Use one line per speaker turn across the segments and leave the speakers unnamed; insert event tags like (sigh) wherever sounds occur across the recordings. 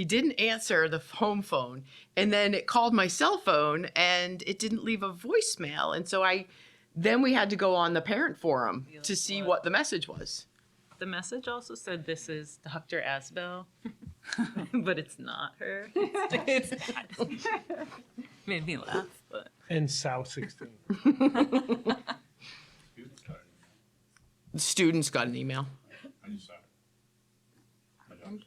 He didn't answer the home phone. And then it called my cell phone and it didn't leave a voicemail. And so I, then we had to go on the parent forum to see what the message was.
The message also said this is Dr. Asbel, (laughs) but it's not her. It's, it's- (laughs) made me laugh, but
And South 16.
Students got it.
The students got an email.
I just saw it. My daughter.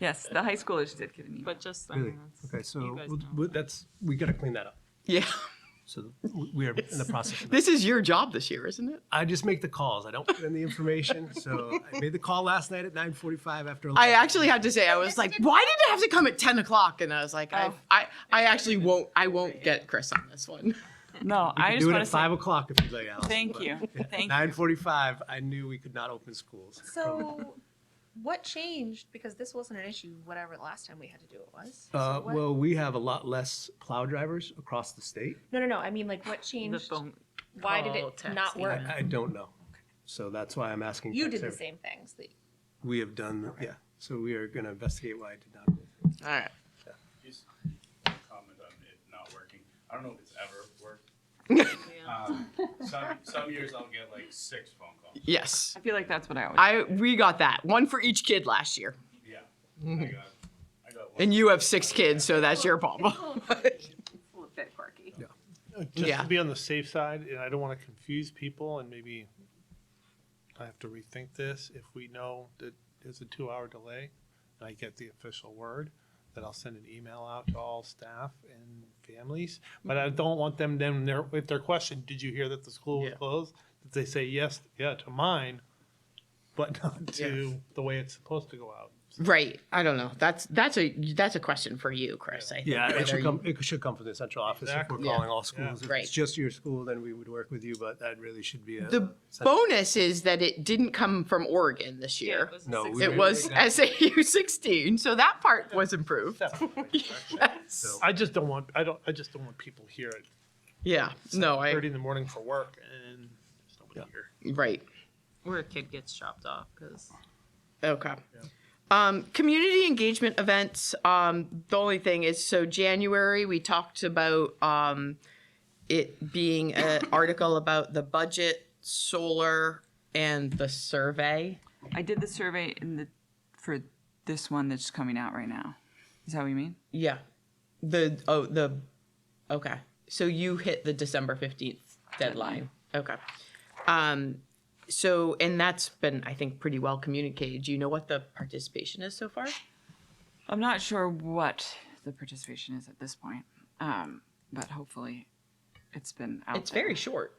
Yes, the high schoolers did get an email.
but just
(laughs) Really?
silence.
Okay, so
You guys
we'll-
know.
we'll- that's, we gotta clean that up.
Yeah. (laughs)
So we- we are in the process of that.
This is your job this year, isn't it?
I just make the calls. I don't put in the information. So I made the call last night at 9:45 after.
I
11.
actually had to say, I was like, why did it have to come at 10 o'clock? And I was like,
Oh.
I, I, I actually won't, I won't get Chris on this
(laughs)
one.
No,
You
I
can
just
do it
want to
at five
say,
o'clock if you'd like, Allison.
thank
but
you, thank you.
9:45, I knew we could not open schools. (laughs)
So, what changed? Because this wasn't an issue, whatever the last time we had to do it was. So
Uh,
what-
well, we have a lot less plow drivers across the state.
no, no, no. I mean, like, what
The
changed?
phone,
Why did
call,
it
text,
not work?
I, I don't know. So that's why I'm asking.
You
for
did the
clarity.
same things. That,
We have done, yeah. So we are gonna investigate why I did not.
All right.
Just comment on it not working. I don't know if it's ever worked. Um, Some, some years I'll get like six phone calls.
Yes.
I feel like that's what I always.
I, we got that. One for each kid last year.
Yeah. I got, I got one.
And you have six kids, so that's your problem.
It's a little bit quirky.
Just
Yeah.
to be on the safe side, and I don't want to confuse people, and maybe I have to rethink this, if we know that there's a two-hour delay, and I get the official word, that I'll send an email out to all staff and families, but I don't want them, them, their, with their question, did you hear that the school was
Yeah.
closed? That they say, yes, yeah, to mine, but (laughs) not to the way it's supposed to go out.
Right. I don't know. That's, that's a, that's a question for you, Chris. I think.
Yeah, it
whether
should
you-
come, it should come from the central office if we're
Exactly.
Yeah.
calling all schools. If
Right.
it's just your school, then we would work with you, but that really should be a.
The bonus is that it didn't come from Oregon this
Yeah,
year.
it was
No,
six-
we-
It was SAU 16, so that part was improved. Yes.
So-
I just don't want, I don't, I just don't want people here at
Yeah. No, I,
thirty in the morning for work and there's nobody
Yeah.
here.
right.
where a kid gets chopped off because
Okay. Um, community engagement events. Um, the only thing is, so January, we talked about, um, it being an article about the budget, solar, and the survey.
I did the survey in the, for this one that's coming out right now. Is that what you mean?
Yeah. The, oh, the, okay. So you hit the December 15th deadline. Okay. Um, so, and that's been, I think, pretty well communicated. Do you know what the participation is so far?
I'm not sure what the participation is at this point, um, but hopefully it's been out
It's very
there.
short.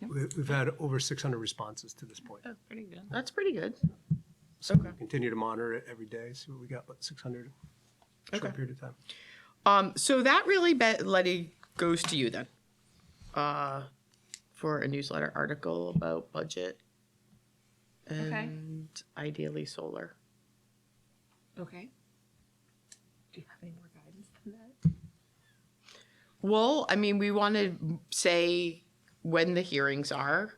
We- We've had over six hundred responses to this
Oh,
point.
pretty good.
That's pretty good.
So we continue to monitor it every day, see what we got, but six hundred, short period of time.
Um, so that really, be- Letty, goes to you then, uh, for a newsletter article about budget and ideally solar.
okay. Do you have any more guidance than that?
Well, I mean, we want to say when the hearings are.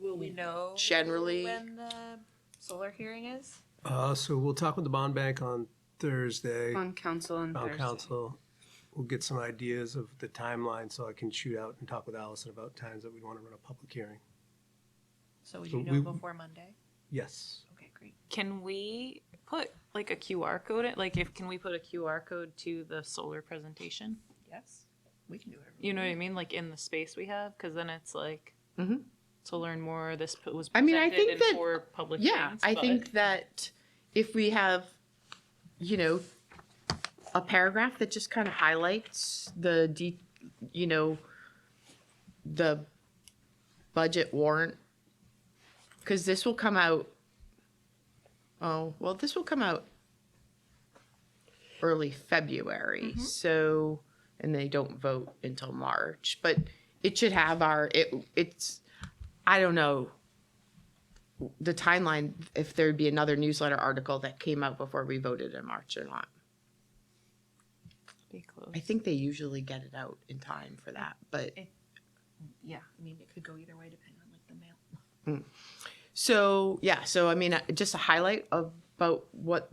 Will we know
Generally-
when the solar hearing is?
Uh, so we'll talk with the bond bank on Thursday,
On council and
bond
Thursday.
council. We'll get some ideas of the timeline, so I can shoot out and talk with Allison about times that we'd want to run a public hearing.
So
So
you know
we-
before Monday?
Yes.
Okay, great.
Can we put like a QR code? in- Like, if can we put a QR code to the solar presentation?
Yes, we can do it.
You know what I mean? Like in the space we have, because then it's like
Mhm.
to learn more. This p- was.
I mean, I
presented
think
and
that-
for public.
Yeah,
hearings,
I
but-
think that if we have, you know, a paragraph that just kind of highlights the de, you know, the budget warrant, because this will come out, oh, well, this will come out early February, so, and they don't vote until March, but it should have our, it, it's, I don't know the timeline if there'd be another newsletter article that came out before we voted in March or not.
Be close.
I think they usually get it out in time for that, but
Yeah, I mean, it could go either way depending on like the mail.
Mm. so yeah, so I mean, uh, just a highlight of about what